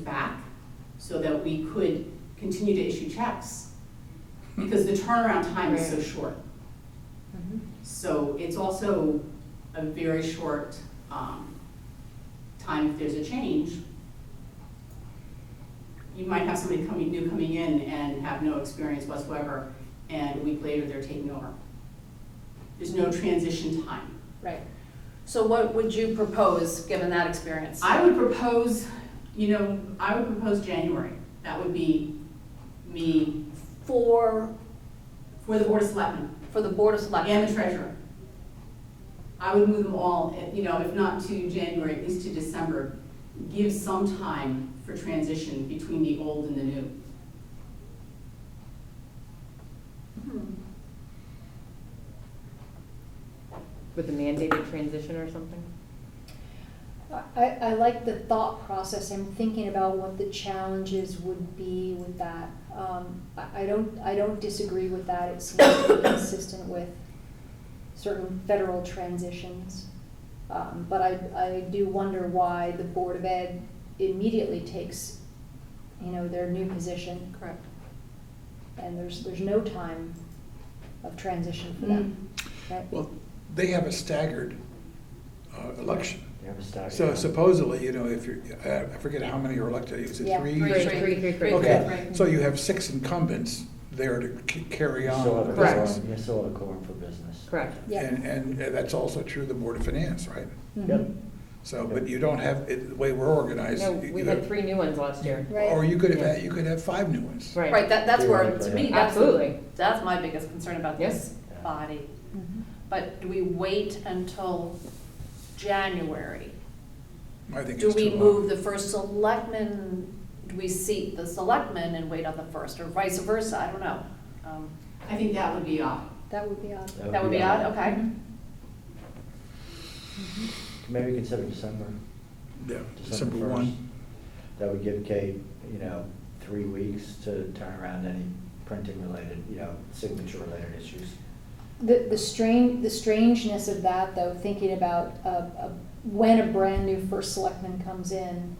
back so that we could continue to issue checks. Because the turnaround time is so Right. short. So it's also a very short um, time if there's a change. You might have somebody coming, new coming in and have no experience whatsoever, and a week later, they're taking over. There's no transition time. Right. So what would you propose, given that experience? I would propose, you know, I would propose January. That would be me For, for the Board of Selectmen. for the Board of and Selectmen? the treasurer. I would move them all, eh, you know, if not to January, at least to December. Give some time for transition between the old and the new. With a mandated transition or something? I, I like the thought process and thinking about what the challenges would be with that. Um, I, I don't, I don't disagree with that. It seems to be consistent with certain federal transitions. Um, but I, I do wonder why the Board of Ed immediately takes, you know, their new position. Correct. And there's, there's no time of transition for them, right? Well, they have a staggered uh, election. You have a staggered. So supposedly, you know, if you're, uh, I I forget how many are elected, is it Yeah, three? Three, Three, three, three, three. Okay, so you have six incumbents there to c- carry You on. still have a the Correct. business. quorum- You still have a quorum for business. Correct. Yeah. And, and that's also true of the Board of Finance, right? Mm-hmm. Yep. So, but you don't have, it- the way we're organized. No, you we have- had three new ones last year. Right. Or you could have, Yeah. had- you could have five new ones. Right, that, that's where, to me, that's, Absolutely. that's my biggest concern about this Yeah. body. Mm-hmm. But do we wait until January? I think Do it's we too long. move the first selectman, do we seat the selectman and wait on the first, or vice versa? I don't know. Um, I think that would be odd. That would be odd. That would be odd, Mm-hmm. okay. Maybe consider December. Yeah, December one. 1st. That would give Kate, you know, three weeks to turn around any printing related, you know, signature related issues. The, the strange, the strangeness of that, though, thinking about uh, uh, when a brand new first selectman comes in,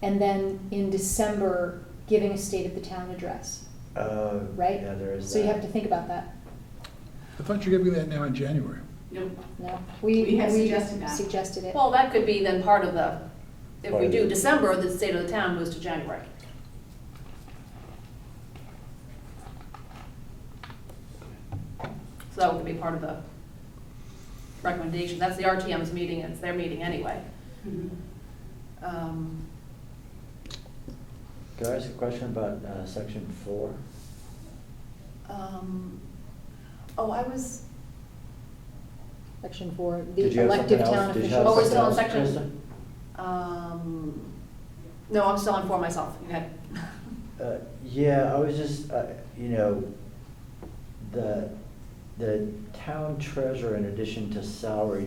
and then in December giving a state of the town address, Oh, right? Yeah, there is So you have to that. think about that. I thought you were giving that now in January. No, No, we We had suggested that. suggested it. Well, that could be then part of the, if Part we of do it. December, the state of the town moves to January. So that would be part of the recommendation. That's the RTM's meeting, and it's their meeting anyway. Um, Could I ask a question about uh, section four? um, Oh, I was, Section four, Did the you have elective something else? town Did you official. have Oh, we're something still on else, section- Krista? um, no, I'm still on for myself. Go ahead. Uh, Yeah, I was just, uh, you know, the, the town treasurer, in addition to salary,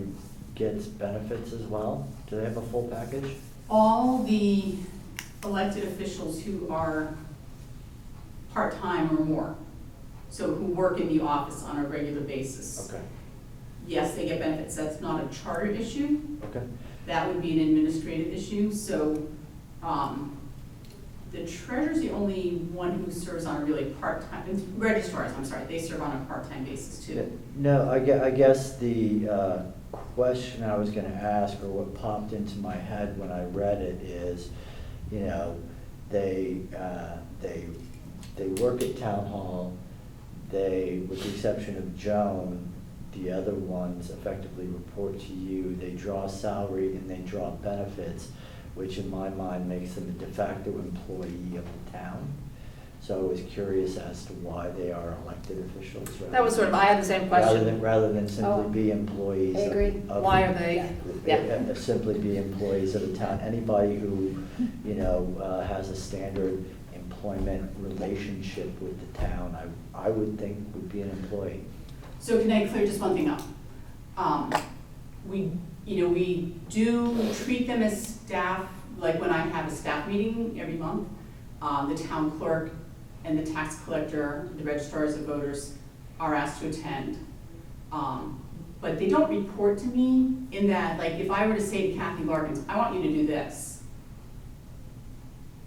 gets benefits as well? Do they have a full package? All the elected officials who are part-time or more, so who work in the office on a regular basis. Okay, Yes, they get benefits. That's not a charter issue. okay. That would be an administrative issue, so, um, the treasurer's the only one who serves on a really part-time, it's registrars, I'm sorry, they serve on a part-time basis too. No, I guess, I guess the uh, question I was gonna ask, or what popped into my head when I read it is, you know, they, uh, they, they work at town hall, they, with the exception of Joan, the other ones effectively report to you, they draw salary and they draw benefits, which in my mind makes them a de facto employee of the town. So I was curious as to why they are elected officials. rather That was sort of, I had the same Rather than, question. rather than simply Oh, be employees. I of- agree. of- Why are they, uh, yeah. uh, Simply be employees of the town. Anybody who, you know, uh, has a standard employment relationship with the town, I, I would think would be an employee. So can I clear just one thing up? Um, we, you know, we do treat them as staff, like when I have a staff meeting every month, um, the town clerk and the tax collector, the registrars of voters are asked to attend. Um, but they don't report to me in that, like, if I were to say to Kathy Larkins, I want you to do this,